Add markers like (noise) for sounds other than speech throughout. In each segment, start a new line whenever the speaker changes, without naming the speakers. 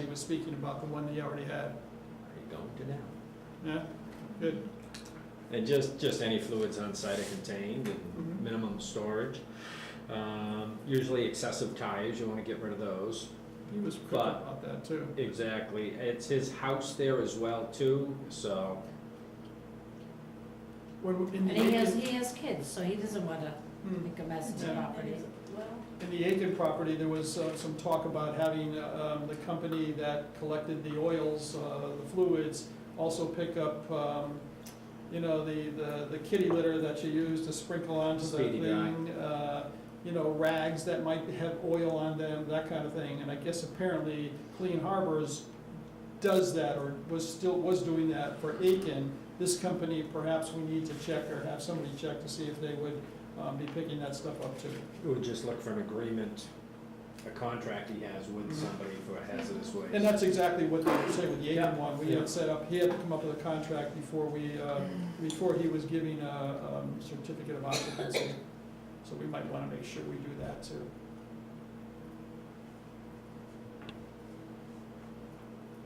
He was speaking about the one that you already had.
Are you going to now?
Yeah, good.
And just, just any fluids on site are contained
Mhm.
and minimum storage. Um, usually excessive tires, you wanna get rid of those.
He was quick
But-
about that too.
Exactly, it's his house there as well too, so,
What, in
And
the
he has,
Aiken,
he has kids, so he doesn't want to
hmm,
make a mess of the
Yeah.
property.
in the Aiken property, there was uh, some talk about having, uh, um, the company that collected the oils, uh, the fluids, also pick up, um, you know, the, the, the kitty litter that you use to sprinkle onto the
Speedy guy.
thing. Uh, you know, rags that might have oil on them, that kind of thing. And I guess apparently Clean Harbors does that or was still, was doing that for Aiken. This company, perhaps we need to check or have somebody check to see if they would, um, be picking that stuff up too.
we would just look for an agreement, a contract he has with
Mhm.
somebody for hazardous waste.
And that's exactly what they were saying with the Aiken
Yeah.
one, we
Yeah.
had set up, he had come up with a contract before we, uh, before he was giving a um, certificate of occupancy. So we might wanna make sure we do that too.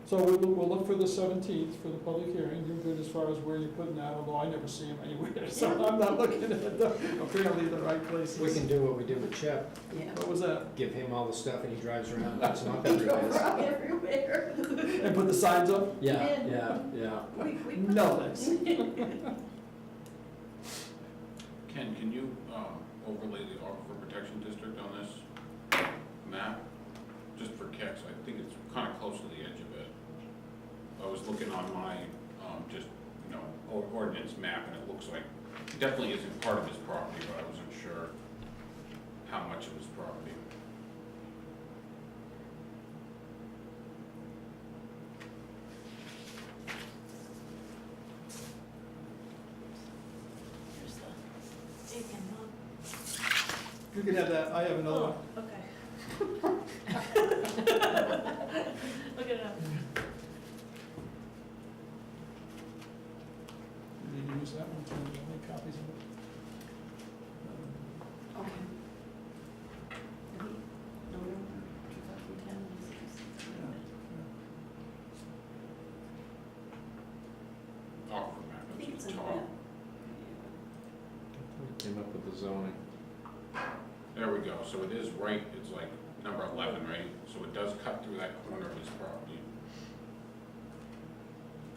So we'll, we'll look for the seventeenth for the public hearing, you're good as far as where you're putting that, although I never see him anywhere, (laughs) so I'm not looking at the, apparently the right places.
We can do what we did with Chip,
Yeah.
What was that?
give him all the stuff and he drives around, it's
(laughs)
not everywhere.
Everywhere.
And put the signs up?
Yeah, yeah, yeah.
We, we.
No, thanks.
Ken, can you um, overlay the aquifer protection district on this map? Just for kicks, I think it's kind of close to the edge of it. I was looking on my, um, just, you know, or- ordinance map, and it looks like, it definitely isn't part of his property, but I wasn't sure how much of his property.
There's the Aiken, huh?
You can have that, I have another one.
Oh, okay. Look it up.
You can use that one, too. I'll make copies of it.
Okay. November 2010, this is-
Aquifer map,
I think it's
it's at
in
the
the.
top.
Came up with the zoning.
There we go, so it is right, it's like number 11, right? So it does cut through that corner of his property.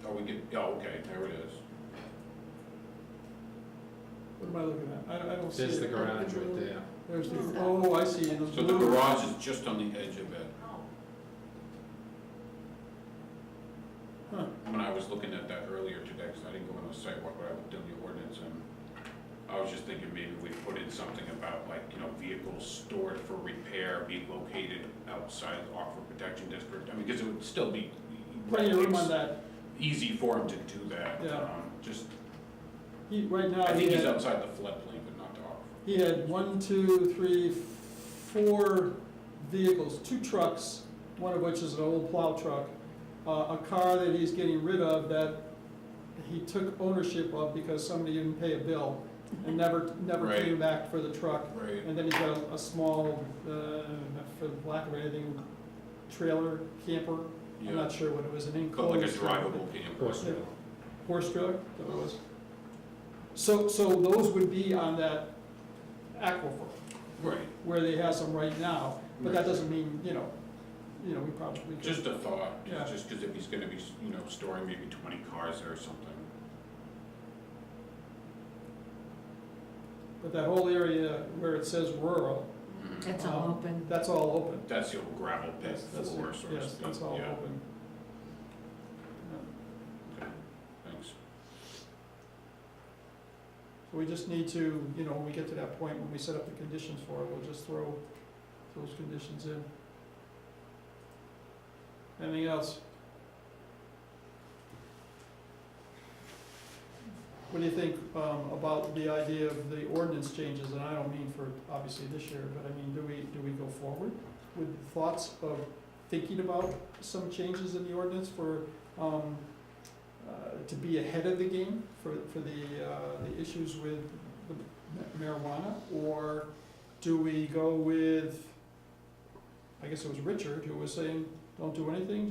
Oh, we get, oh, okay, there it is.
What am I looking at? I, I don't see
There's the
it.
garage right there.
There's the,
What's that?
oh, I see, in the
So the
blue.
garage is just on the edge of it.
Oh,
Huh.
When I was looking at that earlier today, because I didn't go on the site walk, but I looked in the ordinance, and I was just thinking maybe we put in something about like, you know, vehicles stored for repair be located outside the aquifer protection district. I mean, because it would still be.
Plenty of room on that.
Easy for him to do that.
Yeah.
um, Just,
He, right now,
I
he
think he's
had,
outside the floodplain, but not the aquifer.
he had one, two, three, four vehicles, two trucks, one of which is an old plow truck, uh, a car that he's getting rid of that he took ownership of because somebody didn't pay a bill and never, never
Right.
came back for the truck.
Right.
And then he's got a- a small, uh, for lack of anything, trailer, camper, I'm
Yeah,
not sure what it was, an
but
enclosed.
like a drivable camper.
Horse trailer.
Horse trailer, is that what it was? So, so those would be on that aquifer,
Right,
where they have some right now, but that
Right.
doesn't mean, you know, you know, we probably could.
just a thought,
Yeah.
just because if he's gonna be, you know, storing maybe twenty cars there or something.
But that whole area where it says rural,
Mhm.
It's all open.
that's all open.
That's the old gravel pit
Mm-hmm. That's, that's,
floor, so to
yes,
speak,
that's all
yeah,
open. Yeah.
thanks.
So we just need to, you know, when we get to that point, when we set up the conditions for it, we'll just throw those conditions in. Anything else? What do you think, um, about the idea of the ordinance changes, and I don't mean for, obviously, this year, but I mean, do we, do we go forward with thoughts of thinking about some changes in the ordinance for, um, uh, to be ahead of the game for, for the, uh, the issues with the marijuana? Or do we go with, I guess it was Richard who was saying, don't do anything,